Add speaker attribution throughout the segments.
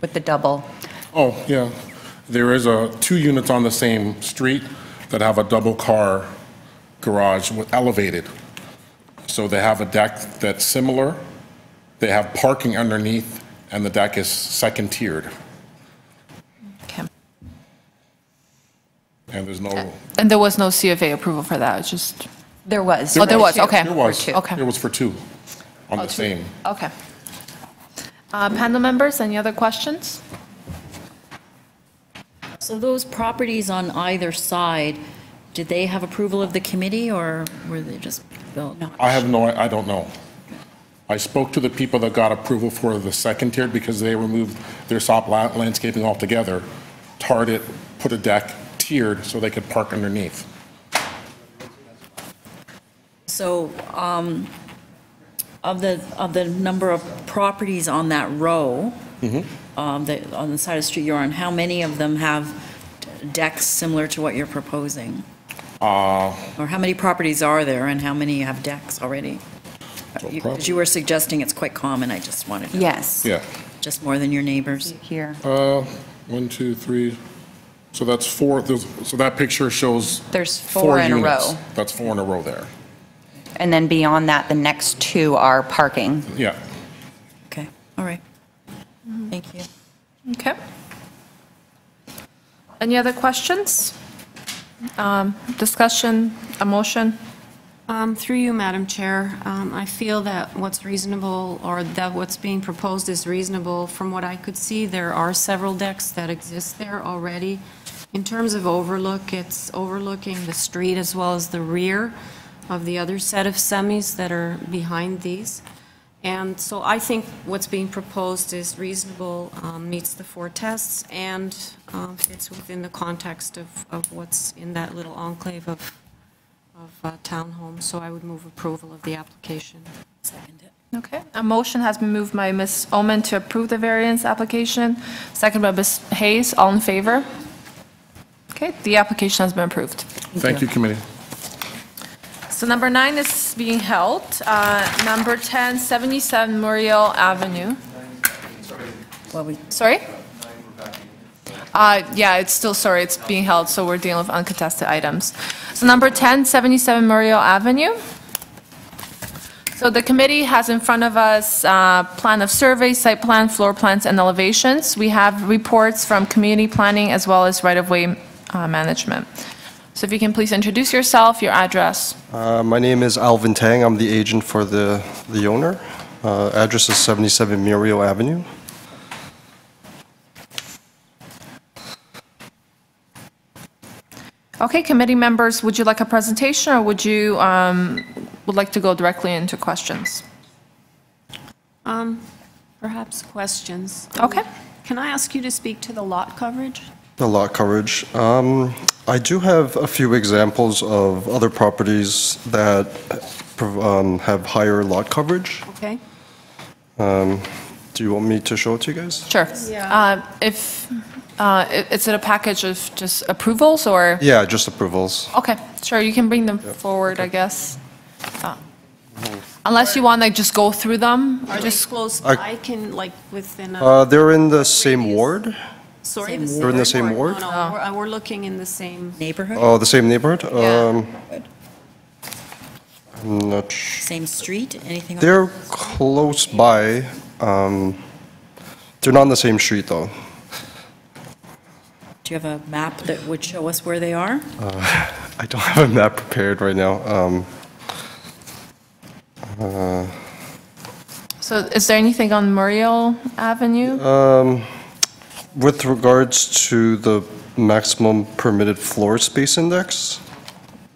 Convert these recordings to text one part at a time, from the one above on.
Speaker 1: with the double.
Speaker 2: Oh, yeah. There is a, two units on the same street that have a double-car garage with elevated. So they have a deck that's similar, they have parking underneath, and the deck is second-tiered,
Speaker 3: Okay.
Speaker 2: and there's no...
Speaker 3: And there was no CFA approval for that, it's just,
Speaker 1: There was.
Speaker 3: Oh, there was,
Speaker 1: Two.
Speaker 3: okay. Oh,
Speaker 2: There was,
Speaker 1: two.
Speaker 3: Okay.
Speaker 2: there was for two on the same.
Speaker 3: okay. Uh, Panel members, any other questions?
Speaker 4: So those properties on either side, did they have approval of the committee, or were they just built? No.
Speaker 2: I have no, I don't know. I spoke to the people that got approval for the second tier because they removed their soft la- landscaping altogether, tarred it, put a deck tiered so they could park underneath.
Speaker 4: So um, of the, of the number of properties on that row,
Speaker 2: Mm-hmm.
Speaker 4: um, that- on the side of the street you're on, how many of them have decks similar to what you're proposing?
Speaker 2: Uh.
Speaker 4: Or how many properties are there, and how many have decks already? Because you were suggesting it's quite common, I just wanted to,
Speaker 1: Yes.
Speaker 2: Yeah.
Speaker 4: just more than your neighbors.
Speaker 1: Here.
Speaker 2: Uh, One, two, three, so that's four, there's- so that picture shows.
Speaker 1: There's four in a
Speaker 2: units.
Speaker 1: row.
Speaker 2: That's four in a row there.
Speaker 1: And then beyond that, the next two are parking.
Speaker 2: Yeah.
Speaker 4: Okay, all right. Thank you.
Speaker 3: Okay. Any other questions? Um, Discussion, a motion?
Speaker 5: Um, Through you, Madam Chair, um, I feel that what's reasonable, or that what's being proposed is reasonable. From what I could see, there are several decks that exist there already. In terms of overlook, it's overlooking the street as well as the rear of the other set of semis that are behind these. And so I think what's being proposed is reasonable, um, meets the four tests, and um, fits within the context of of what's in that little enclave of of uh, townhomes, so I would move approval of the application.
Speaker 3: Okay, a motion has been moved by Ms. Omen to approve the variance application, second by Ms. Hayes, all in favor? Okay, the application has been approved.
Speaker 2: Thank you, committee.
Speaker 3: So number nine is being held. Uh, Number 10, 77 Muriel Avenue.
Speaker 4: Well, we
Speaker 3: Sorry? Uh, Yeah, it's still, sorry, it's being held, so we're dealing with uncontested items. So number 10, 77 Muriel Avenue. So the committee has in front of us uh, plan of survey, site plan, floor plans, and elevations. We have reports from community planning as well as right-of-way uh, management. So if you can please introduce yourself, your address.
Speaker 6: Uh, My name is Alvin Tang. I'm the agent for the, the owner. Uh, Address is 77 Muriel Avenue.
Speaker 3: Okay, committee members, would you like a presentation, or would you, um, would like to go directly into questions?
Speaker 5: Um, Perhaps questions?
Speaker 3: Okay.
Speaker 5: Can I ask you to speak to the lot coverage?
Speaker 6: The lot coverage. Um, I do have a few examples of other properties that prov- um, have higher lot coverage.
Speaker 5: Okay.
Speaker 6: Do you want me to show it to you guys?
Speaker 3: Sure.
Speaker 5: Yeah.
Speaker 3: Uh, If, uh, i- is it a package of just approvals, or?
Speaker 6: Yeah, just approvals.
Speaker 3: Okay, sure, you can bring them forward, I guess. Uh,
Speaker 6: Mm-hmm.
Speaker 3: Unless you want to just go through them,
Speaker 5: Are they
Speaker 3: just,
Speaker 5: close,
Speaker 6: I-
Speaker 5: I can, like, within
Speaker 6: Uh,
Speaker 5: a,
Speaker 6: They're in the same ward?
Speaker 5: sorry?
Speaker 4: Same
Speaker 5: the
Speaker 6: They're in the same ward?
Speaker 5: No, no, we're- we're looking in the same,
Speaker 4: Neighborhood?
Speaker 6: Oh, the same neighborhood?
Speaker 3: Yeah.
Speaker 6: Um, I'm Um, not sure.
Speaker 4: Same street, anything? on-
Speaker 6: They're close by. um, They're not on the same street, though.
Speaker 4: Do you have a map that would show us where they are?
Speaker 6: I don't have a map prepared right now. Um,
Speaker 3: so is there anything on Muriel Avenue?
Speaker 6: Uh, With regards to the maximum permitted floor space index,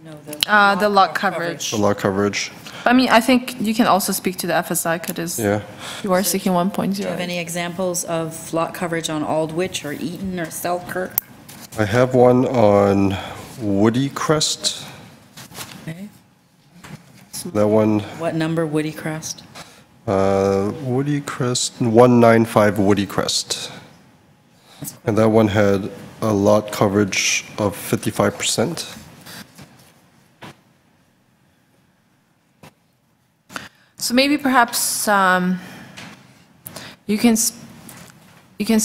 Speaker 4: No,
Speaker 3: Uh, The lot coverage.
Speaker 6: the lot coverage,
Speaker 3: I mean, I think you can also speak to the FSI, because
Speaker 6: yeah.
Speaker 3: you are seeking 1.0.
Speaker 4: Do you have any examples of lot coverage on Aldwych or Eaton or Selkirk?
Speaker 6: I have one on Woody Crest.
Speaker 4: Okay.
Speaker 6: That one,
Speaker 4: What number Woody Crest?
Speaker 6: uh, Woody Crest, 195 Woody Crest. And that one had a lot coverage of 55%.
Speaker 3: So maybe perhaps um, you can, s- you can